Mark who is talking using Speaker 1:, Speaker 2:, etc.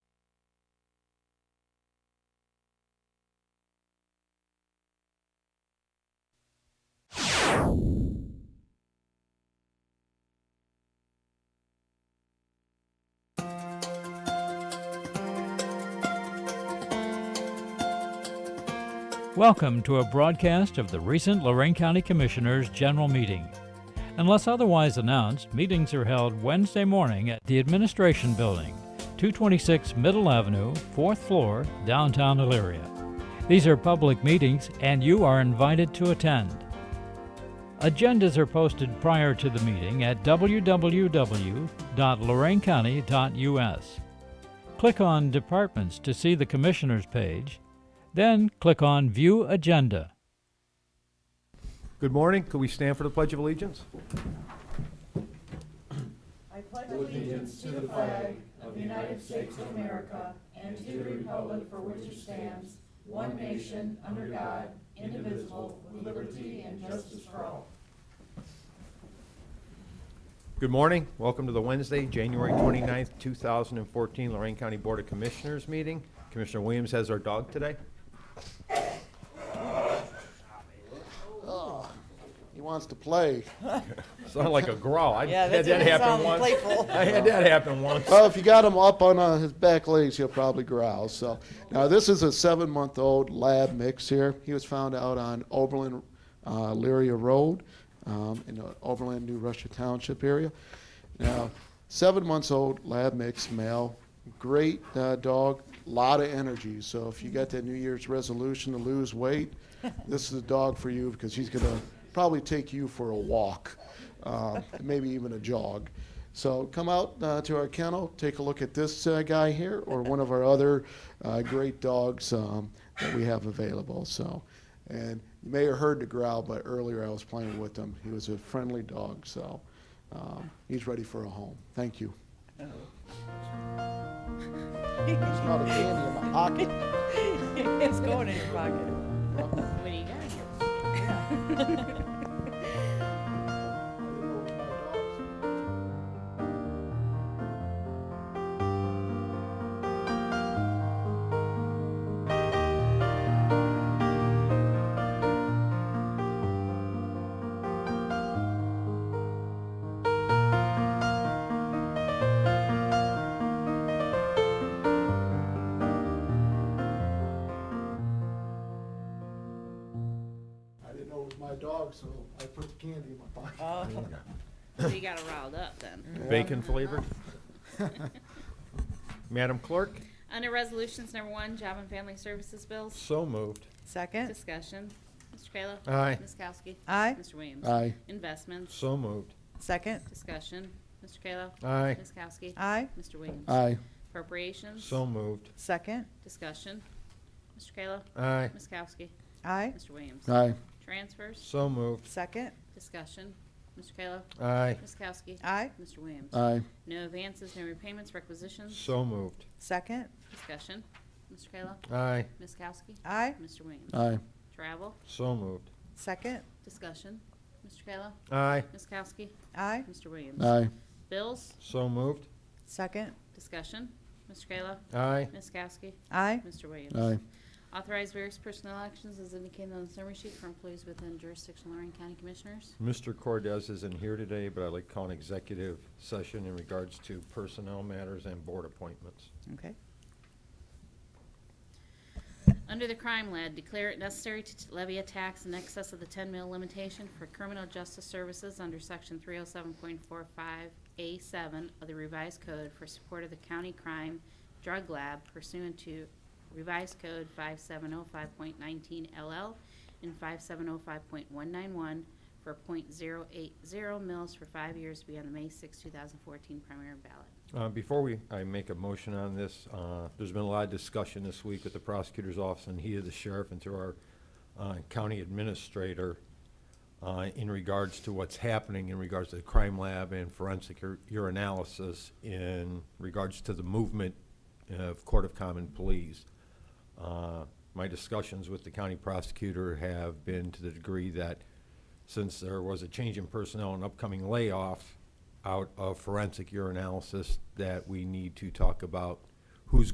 Speaker 1: Welcome to a broadcast of the recent Lorraine County Commissioners' General Meeting. Unless otherwise announced, meetings are held Wednesday morning at the Administration Building, 226 Middle Avenue, 4th floor, downtown Elyria. These are public meetings and you are invited to attend. Agendas are posted prior to the meeting at www.loraincounty.us. Click on Departments to see the Commissioners page, then click on View Agenda.
Speaker 2: Good morning. Could we stand for the Pledge of Allegiance? Good morning. Welcome to the Wednesday, January 29th, 2014 Lorraine County Board of Commissioners meeting. Commissioner Williams has our dog today.
Speaker 3: He wants to play.
Speaker 2: Sounded like a growl. I
Speaker 4: Yeah,
Speaker 2: had
Speaker 4: that
Speaker 2: that
Speaker 4: didn't
Speaker 2: happen
Speaker 4: sound
Speaker 2: once.
Speaker 4: playful.
Speaker 2: I had that happen once.
Speaker 3: Well, if you got him up on uh, his back legs, he'll probably growl. So now this is a seven-month-old lab mix here. He was found out on Oberlin uh, Lyria Road um, in the Oberlin, New Russia Township area. Now, seven months old lab mix male, great uh, dog, lot of energy. So if you got that New Year's resolution to lose weight, this is a dog for you because he's gonna probably take you for a walk, uh, maybe even a jog. So come out uh, to our kennel, take a look at this uh, guy here or one of our other uh, great dogs um, that we have available. So, and you may have heard the growl, but earlier I was playing with him. He was a friendly dog, so um, he's ready for a home. Thank you. He's not a candy in my pocket.
Speaker 4: It's going in your pocket.
Speaker 5: What do you got?
Speaker 3: I didn't know it was my dog, so I put the candy in my pocket.
Speaker 5: So you got it riled up then.
Speaker 2: Bacon flavored. Madam Clerk,
Speaker 5: Under resolutions number one, job and family services bills.
Speaker 2: so moved.
Speaker 4: Second,
Speaker 5: Discussion. Mr. Kayla.
Speaker 2: Aye.
Speaker 5: Ms. Kowski.
Speaker 4: Aye.
Speaker 5: Mr. Williams.
Speaker 3: Aye.
Speaker 5: Investments.
Speaker 2: So moved.
Speaker 4: second,
Speaker 5: Discussion. Mr. Kayla.
Speaker 2: Aye.
Speaker 5: Ms. Kowski.
Speaker 4: aye,
Speaker 5: Mr. Williams.
Speaker 3: Aye.
Speaker 5: Appropriations.
Speaker 2: So moved.
Speaker 4: second,
Speaker 5: Discussion. Mr. Kayla.
Speaker 2: Aye.
Speaker 5: Ms. Kowski.
Speaker 4: aye,
Speaker 5: Mr. Williams.
Speaker 3: Aye.
Speaker 5: Transfers.
Speaker 2: So moved.
Speaker 4: second,
Speaker 5: Discussion. Mr. Kayla.
Speaker 2: Aye.
Speaker 5: Ms. Kowski.
Speaker 4: aye,
Speaker 5: Mr. Williams.
Speaker 3: Aye.
Speaker 5: No advances, no repayments, requisitions.
Speaker 2: So moved.
Speaker 4: second,
Speaker 5: Discussion. Mr. Kayla.
Speaker 2: Aye.
Speaker 5: Ms. Kowski.
Speaker 4: aye,
Speaker 5: Mr. Williams.
Speaker 3: Aye.
Speaker 5: Travel.
Speaker 2: So moved.
Speaker 4: second,
Speaker 5: Discussion. Mr. Kayla.
Speaker 2: Aye.
Speaker 5: Ms. Kowski.
Speaker 4: aye,
Speaker 5: Mr. Williams.
Speaker 3: Aye.
Speaker 5: Bills.
Speaker 2: So moved.
Speaker 4: second,
Speaker 5: Discussion. Mr. Kayla.
Speaker 2: Aye.
Speaker 5: Ms. Kowski.
Speaker 4: aye,
Speaker 5: Mr. Williams.
Speaker 3: Aye.
Speaker 5: Authorize various personnel actions as indicated on the summary sheet for employees within jurisdiction of Lorraine County Commissioners.
Speaker 2: Mr. Cordez isn't here today, but I'd like to call an executive session in regards to personnel matters and board appointments.
Speaker 4: okay,
Speaker 5: Under the crime lead, declare it necessary to t- levy a tax in excess of the 10 mil limitation for criminal justice services under Section 307.45A7 of the Revised Code for support of the county crime drug lab pursuant to Revised Code 5705.19LL and 5705.191 for .080 mils for five years to be on the May 6, 2014 primary ballot.
Speaker 2: Uh, Before we, I make a motion on this, uh, there's been a lot of discussion this week with the prosecutor's office and he is the sheriff and through our uh, county administrator uh, in regards to what's happening in regards to the crime lab and forensic ur- urinalysis in regards to the movement uh, of Court of Common Pleas. Uh, My discussions with the county prosecutor have been to the degree that since there was a change in personnel and upcoming layoff out of forensic urinalysis, that we need to talk about